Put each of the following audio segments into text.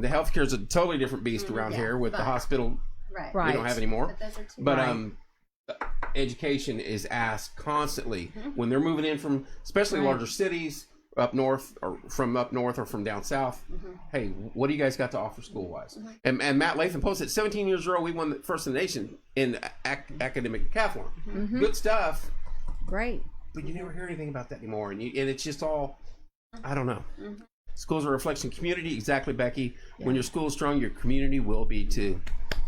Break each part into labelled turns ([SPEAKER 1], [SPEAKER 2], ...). [SPEAKER 1] The healthcare is a totally different beast
[SPEAKER 2] Mhm,
[SPEAKER 1] around
[SPEAKER 2] yeah,
[SPEAKER 1] here with the
[SPEAKER 2] but-
[SPEAKER 1] hospital.
[SPEAKER 2] Right.
[SPEAKER 1] We
[SPEAKER 3] Mm, Right.
[SPEAKER 1] don't have any more.
[SPEAKER 2] But those are two.
[SPEAKER 1] But
[SPEAKER 3] Right.
[SPEAKER 1] um, education is asked constantly
[SPEAKER 2] Mhm.
[SPEAKER 1] when they're moving in from, especially
[SPEAKER 3] Mm-hmm. Right.
[SPEAKER 1] larger cities up north or from up north or from down south.
[SPEAKER 3] Mm-hmm.
[SPEAKER 2] Mhm.
[SPEAKER 1] Hey, what do you guys got to offer school wise?
[SPEAKER 2] Mhm.
[SPEAKER 1] And, and Matt Latham posted 17 years old, we won the first in the nation in ac- academic decathlon.
[SPEAKER 3] Mm-hmm.
[SPEAKER 1] Good stuff,
[SPEAKER 3] Great.
[SPEAKER 1] but you never hear anything about that anymore. And, you, and it's just all,
[SPEAKER 3] Mm-hmm.
[SPEAKER 1] I don't know.
[SPEAKER 2] Mhm.
[SPEAKER 1] Schools are a reflection of community. Exactly, Becky.
[SPEAKER 3] Yeah.
[SPEAKER 1] When your school is strong, your community will be too.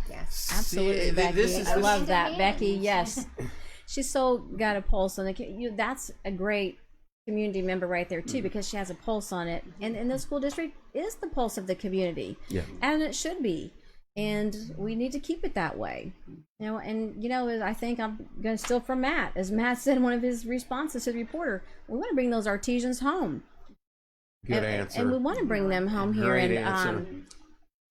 [SPEAKER 2] Yes.
[SPEAKER 1] See,
[SPEAKER 3] Absolutely,
[SPEAKER 1] th-
[SPEAKER 3] Becky.
[SPEAKER 1] this is
[SPEAKER 3] I
[SPEAKER 1] this-
[SPEAKER 3] love
[SPEAKER 2] is-
[SPEAKER 3] that, Becky.
[SPEAKER 2] Hand.
[SPEAKER 3] Yes, she's so got a pulse on the. co- You, that's a great community member right there
[SPEAKER 1] Mm-hmm.
[SPEAKER 3] too, because she has a pulse on it. And and the school district is the pulse of the community,
[SPEAKER 1] Yeah.
[SPEAKER 3] and it should be. And we need to keep it that way. You know, and you know, I think I'm going to steal from Matt, as Matt said in one of his responses to the reporter. We want to bring those artisans home,
[SPEAKER 1] Good
[SPEAKER 3] and,
[SPEAKER 1] answer.
[SPEAKER 3] and we want to bring them home here.
[SPEAKER 1] Great
[SPEAKER 3] And
[SPEAKER 1] answer.
[SPEAKER 3] um,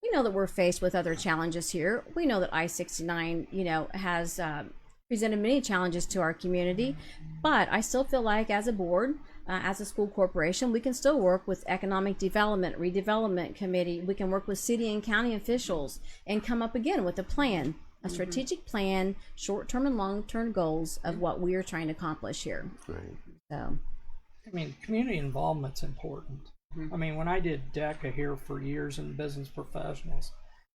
[SPEAKER 3] we know that we're faced with other challenges here. We know that I 69, you know, has uh, presented many challenges to our community, but I still feel like as a board, uh, as a school corporation, we can still work with economic development, redevelopment committee. We can work with city and county officials and come up again with a plan, a strategic plan, short term and long term goals of what we are trying to accomplish here.
[SPEAKER 1] Right.
[SPEAKER 3] So,
[SPEAKER 4] I mean, community involvement's important.
[SPEAKER 2] Mm-hmm.
[SPEAKER 4] I mean, when I did DECA here for years in business professionals,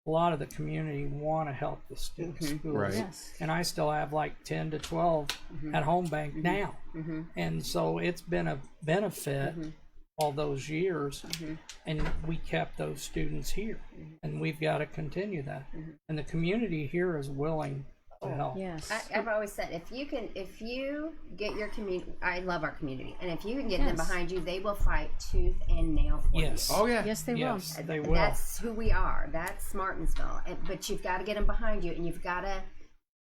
[SPEAKER 4] a lot of the community want to help the stu-
[SPEAKER 2] Mm-hmm.
[SPEAKER 4] schools.
[SPEAKER 1] Right.
[SPEAKER 3] yes.
[SPEAKER 4] And I still have like 10 to 12
[SPEAKER 2] Mm-hmm.
[SPEAKER 4] at Home Bank now. And so it's been a benefit
[SPEAKER 2] Mm-hmm.
[SPEAKER 4] all those years. And we kept those students here.
[SPEAKER 2] Mm-hmm.
[SPEAKER 4] And we've got to continue that. And the community here is willing to
[SPEAKER 2] Oh,
[SPEAKER 4] help.
[SPEAKER 3] Yes.
[SPEAKER 2] I, I've always said if you can, if you get your community, I love our community, and if you can get them
[SPEAKER 3] Yes.
[SPEAKER 2] behind you, they will fight tooth and nail for
[SPEAKER 4] Yes.
[SPEAKER 1] Oh yeah.
[SPEAKER 3] yes, they
[SPEAKER 4] yes,
[SPEAKER 3] will.
[SPEAKER 4] they
[SPEAKER 2] you.
[SPEAKER 4] will.
[SPEAKER 2] That's who we are. That's Martinsville. And- But you've got to get them behind you, and you've got to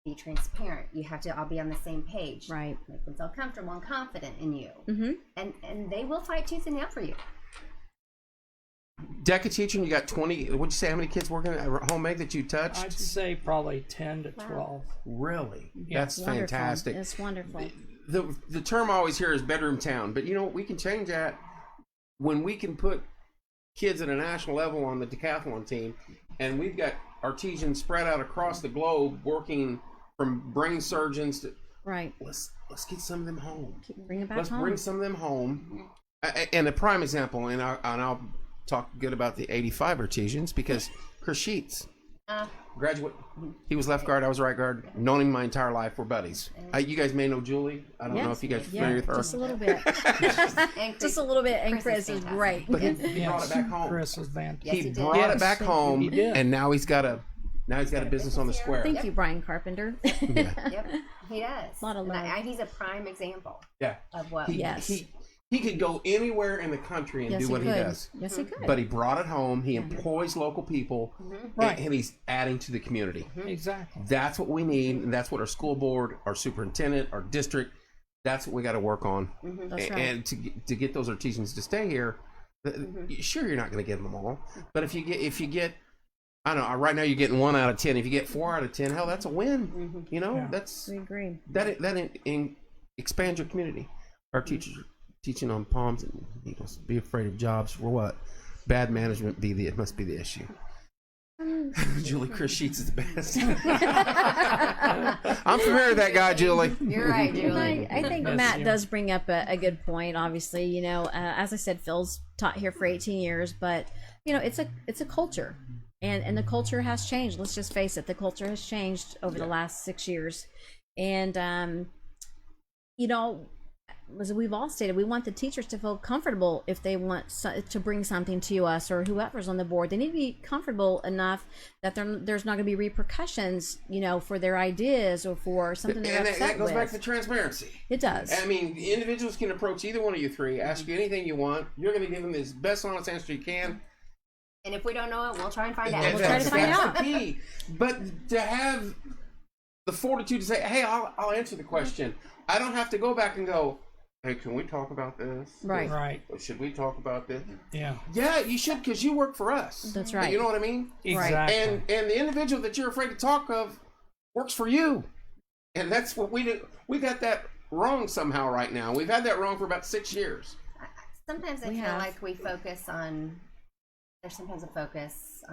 [SPEAKER 2] be transparent. You have to all be on the same page.
[SPEAKER 3] Right.
[SPEAKER 2] Make them feel comfortable and confident in you,
[SPEAKER 3] Mm-hmm.
[SPEAKER 2] and and they will fight tooth and nail for you.
[SPEAKER 1] DECA teaching, you got 20. What'd you say? How many kids working at home egg that you touched?
[SPEAKER 4] I'd say probably 10 to
[SPEAKER 2] Wow.
[SPEAKER 4] 12.
[SPEAKER 1] really?
[SPEAKER 4] Yeah.
[SPEAKER 1] That's
[SPEAKER 3] Wonderful.
[SPEAKER 1] fantastic.
[SPEAKER 3] It's wonderful.
[SPEAKER 1] The, the term I always hear is bedroom town, but you know what? We can change that when we can put kids at a national level on the decathlon team, and we've got artisans spread out across the globe working from brain surgeons to
[SPEAKER 3] Right.
[SPEAKER 1] let's let's get some of them home.
[SPEAKER 3] Bring it back
[SPEAKER 1] Let's
[SPEAKER 3] home.
[SPEAKER 1] bring some of them home. A- a- And a prime example, and, I, and I'll talk good about the 85 artisans because Chris Sheets,
[SPEAKER 2] Uh,
[SPEAKER 1] graduate. He was left guard. I was right guard. Known him my entire life. We're buddies. Uh, you guys may know Julie. I don't know if
[SPEAKER 3] Yes.
[SPEAKER 1] you guys are
[SPEAKER 3] Yeah,
[SPEAKER 1] familiar with her.
[SPEAKER 3] just a little bit.
[SPEAKER 2] and Chris-
[SPEAKER 3] just a little bit. And
[SPEAKER 2] Chris is
[SPEAKER 3] Chris is
[SPEAKER 2] fantastic.
[SPEAKER 3] great.
[SPEAKER 1] but he, he brought it
[SPEAKER 4] Yes,
[SPEAKER 1] back home.
[SPEAKER 4] Chris is fantastic.
[SPEAKER 2] Yes,
[SPEAKER 1] he,
[SPEAKER 2] he did.
[SPEAKER 1] brought it
[SPEAKER 4] Yes.
[SPEAKER 1] back home,
[SPEAKER 4] He did.
[SPEAKER 1] and now he's got a now he's got a business on the square.
[SPEAKER 3] Thank you, Brian Carpenter.
[SPEAKER 2] Yep, he does.
[SPEAKER 3] Lot of
[SPEAKER 2] And I-
[SPEAKER 3] love.
[SPEAKER 2] I- he's a prime example
[SPEAKER 1] Yeah.
[SPEAKER 2] of what.
[SPEAKER 1] He,
[SPEAKER 3] Yes.
[SPEAKER 1] he he could go anywhere in the country and
[SPEAKER 3] yes,
[SPEAKER 1] do what
[SPEAKER 3] he
[SPEAKER 1] he,
[SPEAKER 3] could.
[SPEAKER 1] does.
[SPEAKER 3] Yes, he could.
[SPEAKER 1] But he brought it home. He
[SPEAKER 3] Mm-hmm.
[SPEAKER 1] employs local people, and-
[SPEAKER 4] Right.
[SPEAKER 1] and he's adding to the community.
[SPEAKER 4] Exactly.
[SPEAKER 1] That's what we need, and that's what our school board, our superintendent, our district. That's what we got to work on.
[SPEAKER 3] That's
[SPEAKER 1] A-
[SPEAKER 3] right.
[SPEAKER 1] and to get- to get those artisans to stay here, th-
[SPEAKER 3] Mm-hmm.
[SPEAKER 1] sure you're not going to get them all, but if you get if you get, I don't know. Right now you're getting one out of ten. If you get four out of ten, hell, that's a win.
[SPEAKER 3] Mm-hmm.
[SPEAKER 1] You know,
[SPEAKER 4] Yeah.
[SPEAKER 1] that's
[SPEAKER 3] we agree.
[SPEAKER 1] that that in, in, expands your community. Our teachers are teaching on palms and eagles. Be afraid of jobs for what? Bad management be the it must be the issue. Julie Chris Sheets is the best. I'm familiar with that guy, Julie.
[SPEAKER 2] You're right, Julie.
[SPEAKER 3] I, I think
[SPEAKER 4] Yes,
[SPEAKER 3] Matt
[SPEAKER 4] yeah.
[SPEAKER 3] does bring up a, a good point. Obviously, you know, uh, as I said, Phil's taught here for 18 years, but you know, it's a it's a culture, and and the culture has changed. Let's just face it, the culture has changed over the last six years, and um, you know, as we've all stated, we want the teachers to feel comfortable if they want so, to bring something to us or whoever's on the board. They need to be comfortable enough that there- there's not going to be repercussions, you know, for their ideas or for something
[SPEAKER 1] And
[SPEAKER 3] they're
[SPEAKER 1] that,
[SPEAKER 3] upset
[SPEAKER 1] that goes
[SPEAKER 3] with.
[SPEAKER 1] back to transparency.
[SPEAKER 3] It does.
[SPEAKER 1] I mean, individuals can approach either one of you three, ask you anything you want. You're going to give them the best honest answer you can.
[SPEAKER 2] And if we don't know it, we'll try and find out.
[SPEAKER 1] And
[SPEAKER 3] we'll try to
[SPEAKER 1] that's-
[SPEAKER 3] find
[SPEAKER 1] that's
[SPEAKER 3] out.
[SPEAKER 1] the key. But to have the fortitude to say, "Hey, I'll, I'll answer the question. I don't have to go back and go, hey, can we talk about this?
[SPEAKER 3] right.
[SPEAKER 4] Right.
[SPEAKER 1] Or should we talk about this?"
[SPEAKER 4] Yeah.
[SPEAKER 1] Yeah, you should, because you work for us.
[SPEAKER 3] That's right.
[SPEAKER 1] You know what I mean?
[SPEAKER 4] Exactly.
[SPEAKER 1] and and the individual that you're afraid to talk of works for you and that's what we do we got that wrong somehow right now we've had that wrong for about six years
[SPEAKER 2] Sometimes I
[SPEAKER 3] We
[SPEAKER 2] feel
[SPEAKER 3] have.
[SPEAKER 2] like we focus on there's sometimes a focus